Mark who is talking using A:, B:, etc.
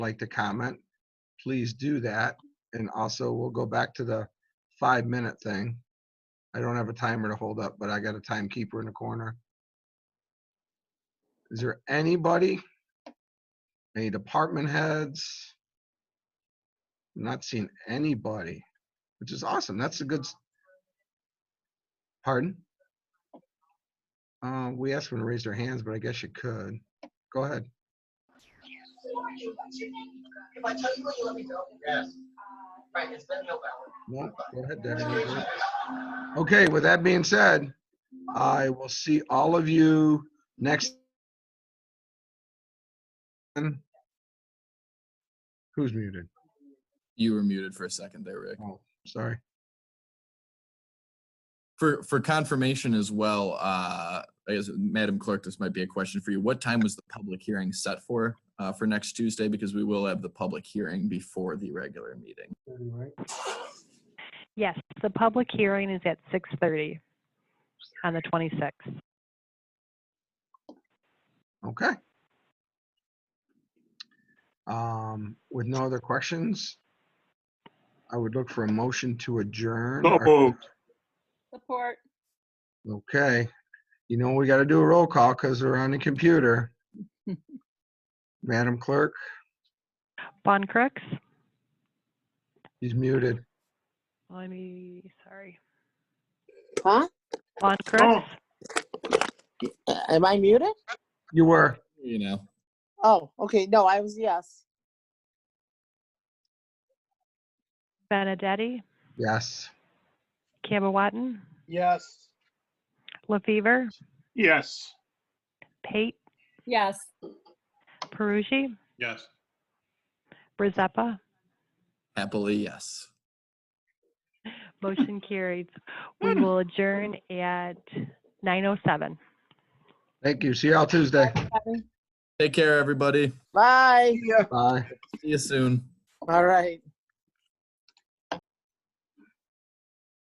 A: like to comment, please do that. And also, we'll go back to the five-minute thing. I don't have a timer to hold up, but I got a timekeeper in the corner. Is there anybody? Any department heads? Not seen anybody, which is awesome. That's a good. s- Pardon? Uh, we asked them to raise their hands, but I guess you could. Go ahead.
B: If I tell you what you let me know? Yes. Right, it's been no hour.
A: No, go ahead, Debbie. Okay, with that being said, I will see all of you next. Who's muted?
C: You were muted for a second there, Rick.
A: Oh, sorry.
C: For for confirmation as well, uh, I guess, Madam Clerk, this might be a question for you. What time was the public hearing set for uh, for next Tuesday? Because we will have the public hearing before the regular meeting.
D: Yes, the public hearing is at 6:30 on the 26th.
A: Okay. Um, with no other questions, I would look for a motion to adjourn.
E: So moved.
F: Support.
A: Okay, you know, we gotta do a roll call because we're on the computer. Madam Clerk,
D: Von Crooks?
A: he's muted.
D: Let me, sorry.
B: Huh?
D: Von Crooks?
B: Am I muted?
A: You were.
C: You know,
B: Oh, okay, no, I was yes.
D: Benedetti?
A: Yes.
D: Camawatton?
E: Yes.
D: LaFever?
E: Yes.
D: Pate?
F: Yes.
D: Perugi?
E: Yes.
D: Brizeppa?
C: happily, yes.
D: Motion carried. We will adjourn at 9:07.
A: Thank you. See y'all Tuesday.
C: Take care, everybody.
B: Bye.
E: Yeah.
A: Bye.
C: See you soon.
B: All right.